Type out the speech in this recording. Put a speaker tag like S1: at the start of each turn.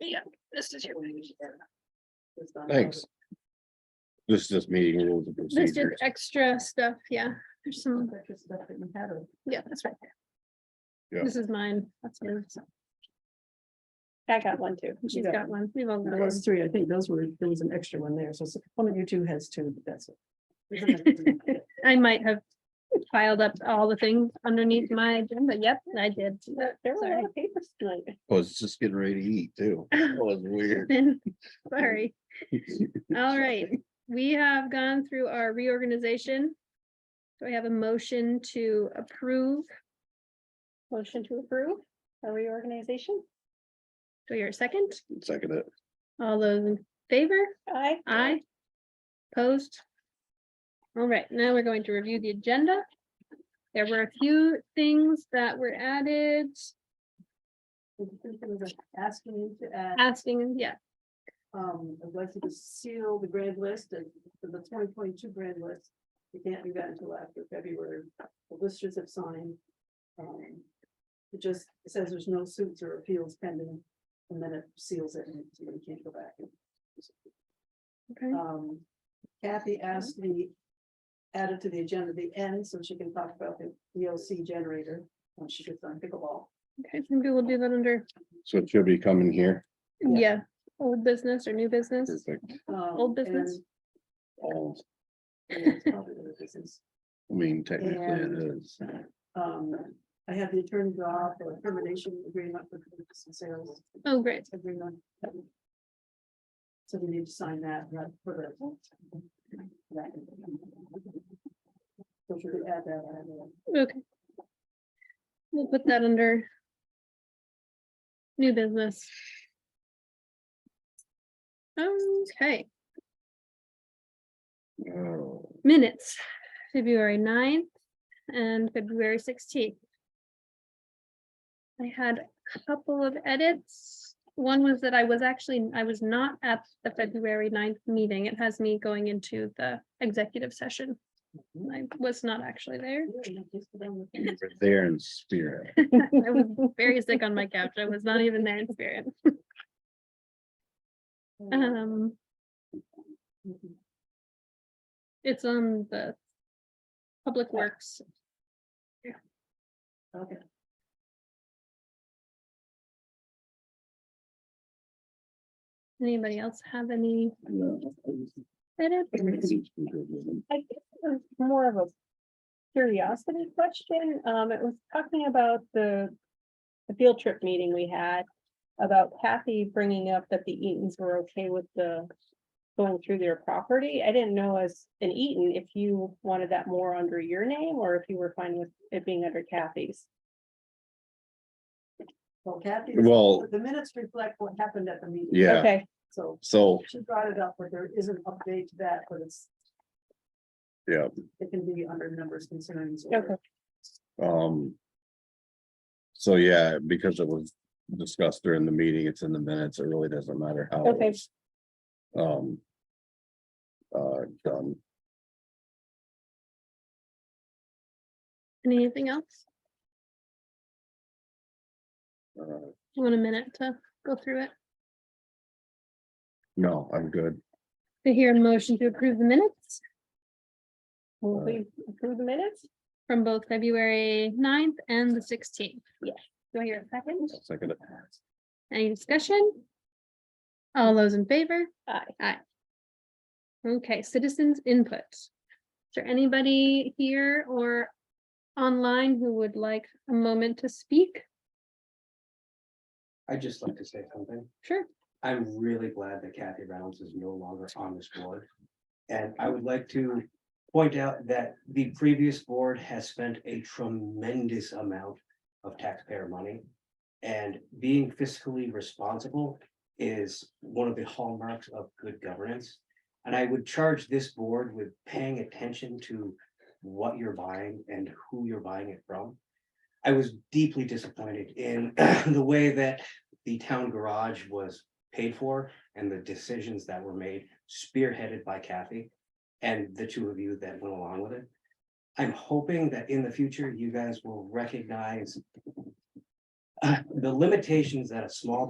S1: Yeah, this is your.
S2: Thanks. This is just meeting rules and
S1: This is
S2: procedures.
S1: extra stuff, yeah, there's some,
S3: That's
S1: yeah, that's right there.
S2: Yeah.
S1: This is mine, that's yours,
S4: I got one too.
S1: she's got one, we've all got one.
S3: Those three, I think those were, there was an extra one there, so one of you two has two, but that's it.
S1: I might have piled up all the things underneath my agenda, yep, I did.
S4: There were a
S1: Sorry.
S4: lot of papers tonight.
S2: I was Oh, just getting ready to eat too. That was weird.
S1: Sorry, all right, we have gone through our reorganization. Do I have a motion to approve,
S4: Motion to approve a reorganization.
S1: do I hear a second?
S2: Second it.
S1: All those in favor?
S4: Aye.
S1: Aye. Opposed? All right, now we're going to review the agenda. There were a few things that were added,
S3: Asking you to add,
S1: asking, yeah,
S3: um, I'd like you to seal the grand list and for the twenty twenty-two grand list. It can't be done until after February, the listers have signed. Um, It just says there's no suits or appeals pending, and then it seals it, and so you can't go back.
S1: okay,
S3: Um, Kathy asked me, added to the agenda the end, so she can talk about the ELC generator when she gets on pickleball.
S1: okay, maybe we'll do that under,
S2: So it should be coming here.
S3: Yeah.
S1: yeah, old business or new business.
S2: Perfect.
S3: Um,
S1: Old business?
S3: and-
S2: All,
S3: yeah, it's probably the business.
S2: I mean, technically it
S3: And-
S2: is.
S3: Um, I have the attorney draw for a termination agreement with the business sales
S1: Oh, great,
S3: agreement. So we need to sign that right, for the. that. So should we add that? on?
S1: okay. We'll put that under new business. Okay,
S2: Oh,
S1: minutes, February 9th and February sixteenth. I had a couple of edits. One was that I was actually, I was not at the February 9th meeting. It has me going into the executive session. I was not actually there.
S2: you were There in spirit.
S1: I was very sick on my couch. I was not even there in spirit. Um, it's on the Public Works.
S3: Okay.
S1: Anybody else have any edits?
S4: I guess it was more of a curiosity question. Um, it was talking about the the field trip meeting we had about Kathy bringing up that the Eatons were okay with the going through their property. I didn't know as an Eaton if you wanted that more under your name or if you were fine with it being under Kathy's.
S3: Well, Kathy.
S2: Well,
S3: The minutes reflect what happened at the meeting.
S2: yeah,
S4: Okay,
S3: So
S2: so,
S3: she brought it up, but there is an update to that, but it's.
S2: Yeah.
S3: It can be under numbers concerns. or-
S4: okay,
S2: um. So, yeah, because it was discussed during the meeting, it's in the minutes. It really doesn't matter how.
S4: Okay.
S2: it's, Um. Uh, done.
S1: Anything else?
S2: Uh,
S1: You want a minute to go through it?
S2: No, I'm good.
S1: To hear a motion to approve the minutes
S4: will we approve the minutes?
S1: from both February 9th and the sixteenth.
S4: Yes.
S1: Do I hear a second?
S2: Second, it.
S1: Any discussion? All those in favor?
S4: Aye.
S1: Aye. Okay, citizens input. Is there anybody here or online who would like a moment to speak?
S5: I'd just like to say something.
S1: Sure.
S5: I'm really glad that Kathy Reynolds is no longer on this board. And I would like to point out that the previous board has spent a tremendous amount of taxpayer money. And being fiscally responsible is one of the hallmarks of good governance. And I would charge this board with paying attention to what you're buying and who you're buying it from. I was deeply disappointed in the way that the town garage was paid for and the decisions that were made spearheaded by Kathy and the two of you that went along with it. I'm hoping that in the future, you guys will recognize uh, the limitations that a small